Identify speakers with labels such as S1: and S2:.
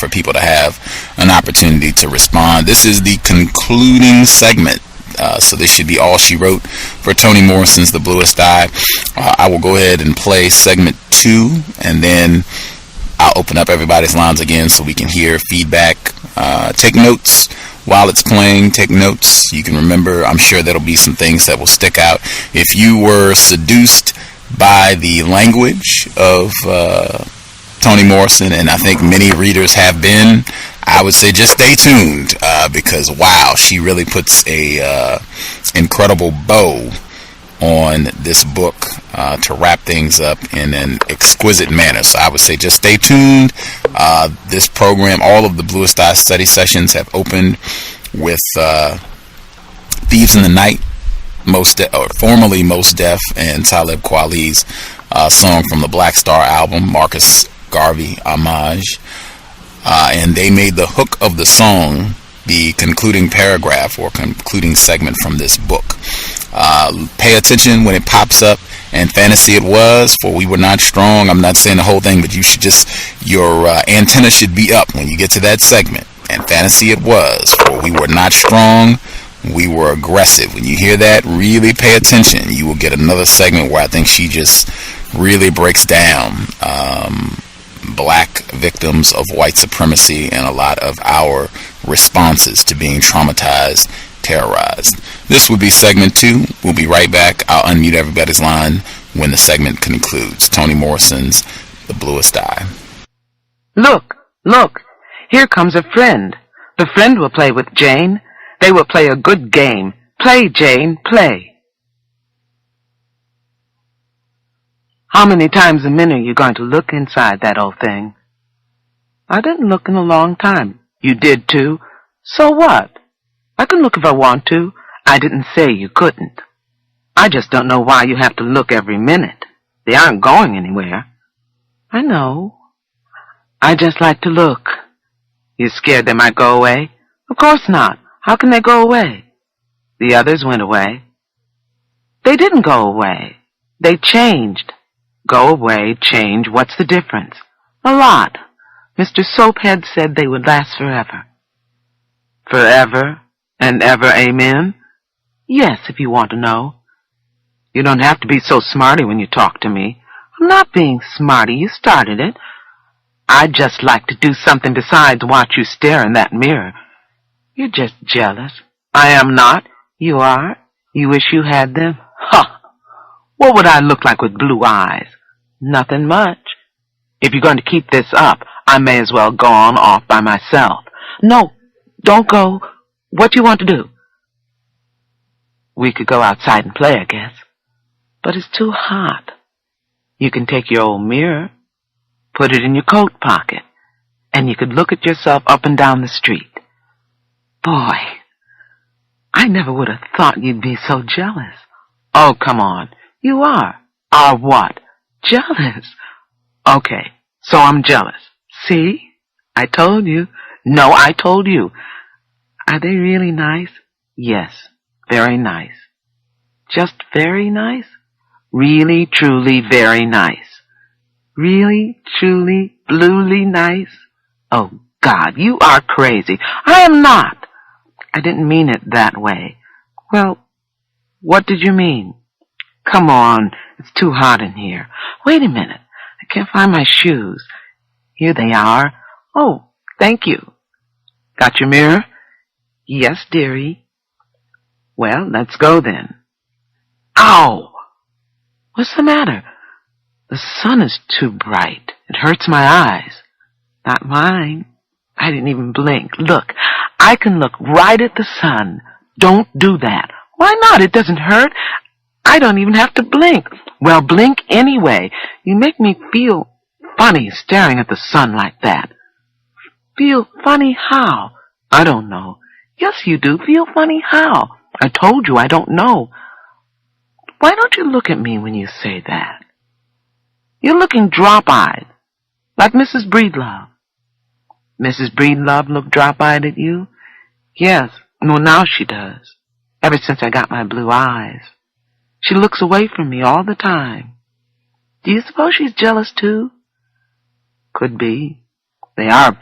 S1: for people to have an opportunity to respond. This is the concluding segment. Uh, so this should be all she wrote for Toni Morrison's The Bluest Eye. Uh, I will go ahead and play segment two, and then I'll open up everybody's lines again so we can hear feedback. Uh, take notes while it's playing. Take notes. You can remember. I'm sure there'll be some things that will stick out. If you were seduced by the language of uh, Toni Morrison, and I think many readers have been, I would say just stay tuned uh, because wow, she really puts a uh, incredible bow on this book uh, to wrap things up in an exquisite manner. So I would say just stay tuned. Uh, this program, all of the Bluest Eye study sessions have opened with uh, Thieves in the Night, most De- or formerly Most Deaf, and Talib Kweli's uh, song from the Black Star album, Marcus Garvey homage, uh, and they made the hook of the song the concluding paragraph or concluding segment from this book. Uh, pay attention when it pops up and fantasy it was for we were not strong i'm not saying the whole thing but you should just your uh, antenna should be up when you get to that segment and fantasy it was for we were not strong we were aggressive when you hear that really pay attention you will get another segment where i think she just really breaks down um, black victims of white supremacy and a lot of our responses to being traumatized, terrorized. This would be segment two. We'll be right back. I'll unmute everybody's line when the segment concludes. Toni Morrison's The Bluest Eye.
S2: Look, look, here comes a friend. The friend will play with Jane. They will play a good game. Play, Jane, play. How many times a minute are you going to look inside that old thing? I didn't look in a long time. You did too. So what? I can look if I want to. I didn't say you couldn't. I just don't know why you have to look every minute. They aren't going anywhere. I know. I just like to look. You're scared they might go away? Of course not. How can they go away? The others went away. They didn't go away. They changed. Go away, change, what's the difference? A lot. Mr. Soaphead said they would last forever. Forever and ever, amen? Yes, if you want to know. You don't have to be so smarty when you talk to me. I'm not being smarty, you started it. I'd just like to do something besides watch you stare in that mirror. You're just jealous. I am not. You are. You wish you had them. Huh. What would I look like with blue eyes? Nothing much. If you're going to keep this up, I may as well go on off by myself. No, don't go. What do you want to do? We could go outside and play, I guess. But it's too hot. You can take your old mirror, put it in your coat pocket, and you could look at yourself up and down the street. Boy, I never would have thought you'd be so jealous. Oh, come on. You are. Are what? Jealous. Okay, so I'm jealous. See? I told you. No, I told you. Are they really nice? Yes, very nice. Just very nice? Really, truly, very nice. Really, truly, bluely nice? Oh, God, you are crazy. I am not. I didn't mean it that way. Well, what did you mean? Come on, it's too hot in here. Wait a minute, I can't find my shoes. Here they are. Oh, thank you. Got your mirror? Yes, dearie. Well, let's go then. Ow! What's the matter? The sun is too bright. It hurts my eyes. Not mine. I didn't even blink. Look, I can look right at the sun. Don't do that. Why not? It doesn't hurt. I don't even have to blink. Well, blink anyway. You make me feel funny staring at the sun like that. Feel funny how? I don't know. Yes, you do. Feel funny how? I told you I don't know. Why don't you look at me when you say that? You're looking drop-eyed, like Mrs. Breedlove. Mrs. Breedlove looked drop-eyed at you? Yes. Well, now she does. Ever since I got my blue eyes. She looks away from me all the time. Do you suppose she's jealous too? Could be. They are